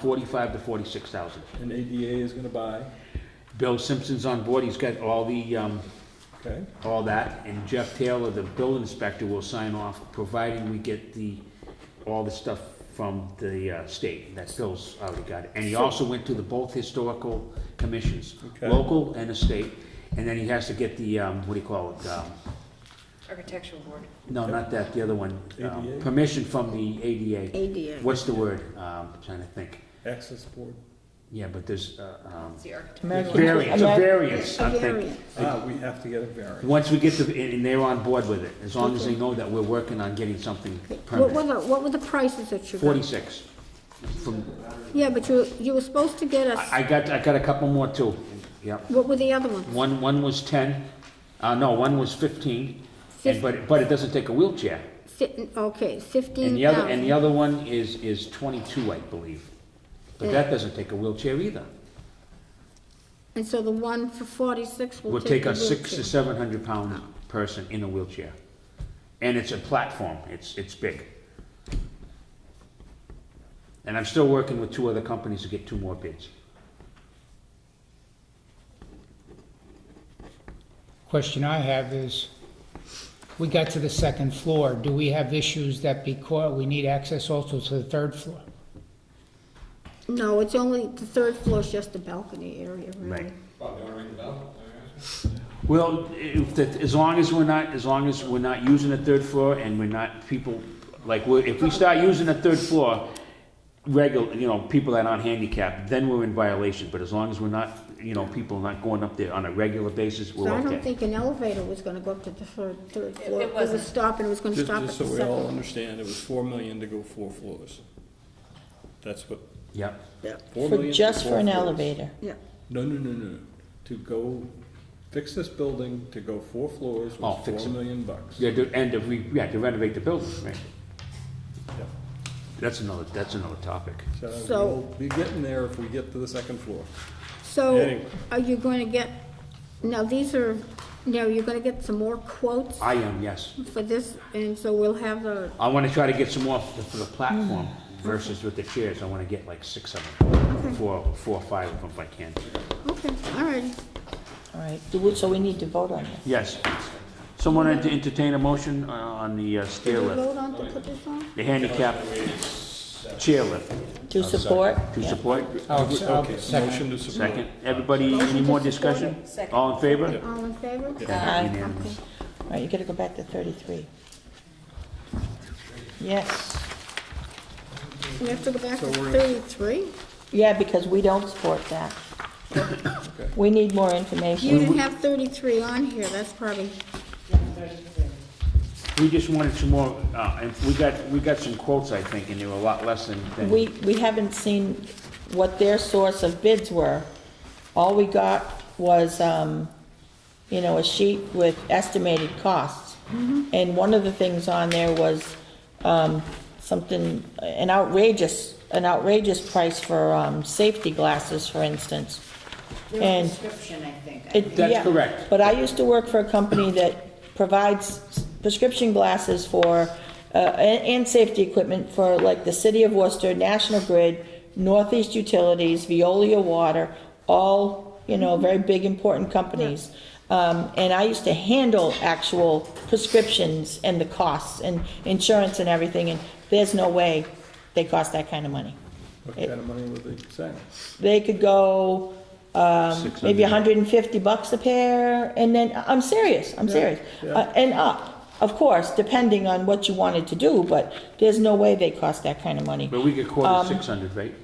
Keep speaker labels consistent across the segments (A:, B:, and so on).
A: 45 to 46,000.
B: and ADA is gonna buy,
A: Bill Simpson's on board, he's got all the, um,
B: okay?
A: all that, and Jeff Taylor, the bill inspector, will sign off, providing we get the, all the stuff from the uh, state, that Bill's already got it. And he also went to the both historical commissions,
B: Okay.
A: local and the state, and then he has to get the, um, what do you call it? um,
C: Architectural board.
A: No, not that, the other one. um,
B: ADA?
A: Permission from the ADA.
D: ADA.
A: What's the word? Um, Trying to think.
B: Access board.
A: Yeah, but there's, uh, um,
C: It's the architect.
A: variance, a variance,
D: A
A: I'm thinking.
D: variance.
B: Ah, we have to get a variance.
A: Once we get to, and and they're on board with it, as long as they know that we're working on getting something
D: What were
A: permanent.
D: the, what were the prices that you got?
A: Forty-six. From,
D: Yeah, but you, you were supposed to get us,
A: I I got, I got a couple more too, yep.
D: what were the other ones?
A: One, one was ten, uh, no, one was fifteen, and, but, but it doesn't take a wheelchair.
D: Fif- Okay,
A: And
D: fifteen
A: the other, and the
D: thousand.
A: other one is, is twenty-two, I believe. But that doesn't take a wheelchair either.
D: And so the one for forty-six will
A: Will take
D: take the
A: a six to
D: wheelchair.
A: seven hundred pound person in a wheelchair. And it's a platform, it's, it's big. And I'm still working with two other companies to get two more bids.
E: Question I have is, we got to the second floor, do we have issues that because, we need access also to the third floor?
D: No, it's only, the third floor is just the balcony area, really.
A: Right. Well, if, that- as long as we're not, as long as we're not using the third floor and we're not people, like, we're- if we start using the third floor, regular, you know, people that aren't handicapped, then we're in violation, but as long as we're not, you know, people not going up there on a regular basis,
D: So
A: we're
D: I don't
A: okay.
D: think an elevator was gonna go up to the third, third floor. It
C: wasn't.
D: was stopping, it was gonna
F: Just,
D: stop at the
F: just so we all
D: second.
F: understand, it was four million to go four floors. That's what,
A: Yep.
F: four
G: For-
F: million to
G: Just for
F: four
G: an
F: floors.
G: elevator.
D: Yeah,
F: No, no, no, no, to go, fix this building, to go four floors
A: Oh,
F: was
A: fix
F: four
A: it.
F: million bucks.
A: Yeah, to, and if we, yeah, to renovate the building, right? That's another, that's another topic.
F: So
D: So-
F: we'll be getting there if we get to the second floor.
D: so
F: Anyway.
D: are you gonna get, now these are, now you're gonna get some more quotes
A: I am, yes.
D: for this, and so we'll have the,
A: I wanna try to get some more for for the platform versus with the chairs, I wanna get like six of them, four, four or five of them if I can.
D: okay, all right.
G: All right, Do we- so we need to vote on this.
A: Yes. Someone ent- entertain a motion uh, on the uh, stair
D: Did we
A: lift,
D: vote on to put this on?
A: the handicap chair lift,
G: To support?
A: to
G: Yeah.
A: support?
E: Oh, it's- oh,
F: Okay,
E: second.
F: motion to support.
A: Second, everybody, any more discussion?
C: Second.
A: All in favor?
D: All in favor?
G: Aye.
A: Unanimous.
G: All right, you gotta go back to thirty-three. Yes,
D: We have to go back to thirty-three?
G: yeah, because we don't support that. We need more information.
D: You didn't have thirty-three on here, that's probably,
A: We just wanted some more, uh, and we got, we got some quotes, I think, and they were a lot less than, than.
G: We, we haven't seen what their source of bids were. All we got was, um, you know, a sheet with estimated costs. And one of the things on there was, um, something, an outrageous, an outrageous price for, um, safety glasses, for instance.
C: Their
G: And
C: prescription, I think.
G: it-
A: That's
G: yeah,
A: correct.
G: But I used to work for a company that provides prescription glasses for, uh, and, and safety equipment for like the City of Worcester, National Grid, Northeast Utilities, Veolia Water, all, you know, very big, important companies. Um, and I used to handle actual prescriptions and the costs and insurance and everything, and there's no way they cost that kind of money.
F: What kind of money would they say?
G: They could go, um,
A: 600.
G: maybe hundred and fifty bucks a pair, and then, I'm serious, I'm serious.
F: yeah.
G: Uh, And up, of course, depending on what you wanted to do, but there's no way they cost that kind of money.
A: But we get quoted six hundred, right?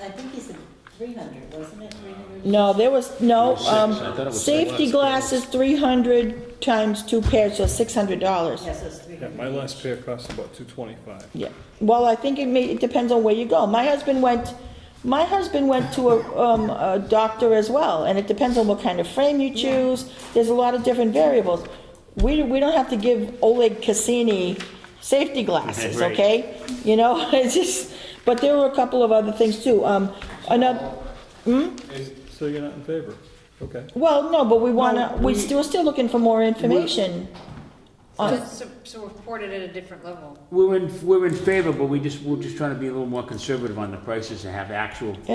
H: I think he said three hundred, wasn't it, three hundred?
G: No, there was, no,
A: Six, I thought it
G: um,
A: was
G: safety glasses, three hundred times two pairs, so six hundred dollars.
H: Yes, it was three
F: Yeah,
H: hundred.
F: my last pair cost about two twenty-five.
G: Yeah, well, I think it may, it depends on where you go. My husband went, my husband went to a, um, a doctor as well, and it depends on what kind of frame you choose. There's a lot of different variables. We, we don't have to give Oleg Cassini safety glasses,
A: Right.
G: okay? You know, it's just, but there were a couple of other things too. Um, another,
F: So you're not in favor? Okay.
G: well, no, but we wanna,
F: we-
G: we still, we're still looking for more information on,
C: So, so report it at a different level.
A: We're in, we're in favor, but we just, we're just trying to be a little more conservative on the prices and have actual